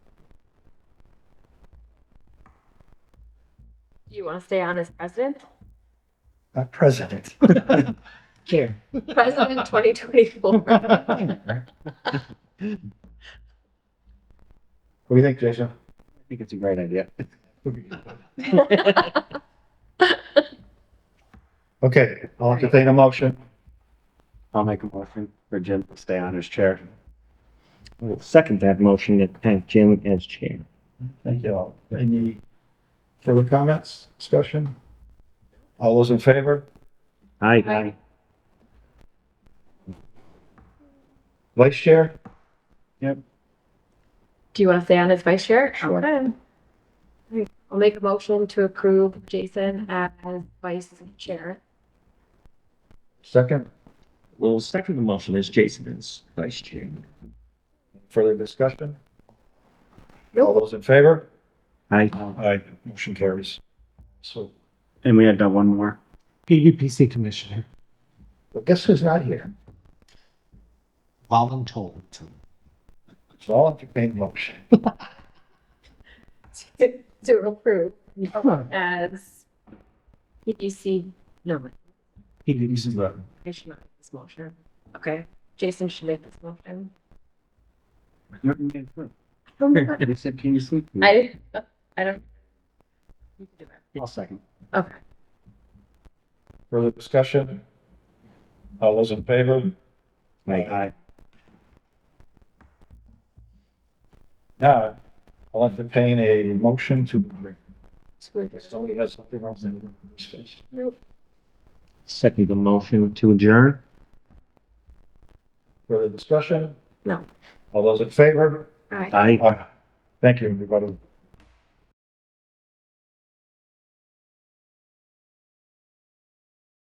Do you want to stay on as president? not president. Chair. President twenty twenty-four. What do you think, Jason? I think it's a great idea. Okay, I'll entertain a motion. I'll make a motion for Jim to stay on his chair. We'll second that motion and have Jim as chair. Thank you all. Any further comments, discussion? All those in favor? Aye. Vice Chair? Do you want to stay on as vice chair? Sure. I'll make a motion to approve Jason as vice chair. Second, We'll second the motion as Jason is vice chair. further discussion? All those in favor? Aye. Aye. Motion carries. So, And we had done one more. PUPC commissioner, but guess who's not here? voluntold. So I'll entertain a motion. To approve as PDC, no, PUPC. I should not make this motion. Okay, Jason should make this motion. You said, can you sleep? I, I don't. You can do it. I'll second. Okay. Further discussion? All those in favor? Aye. Now, I'll entertain a motion to, Screw if this. somebody has something else in their Second the motion to adjourn. Further discussion? No. All those in favor? All right. Aye. Aye. Thank you, everybody.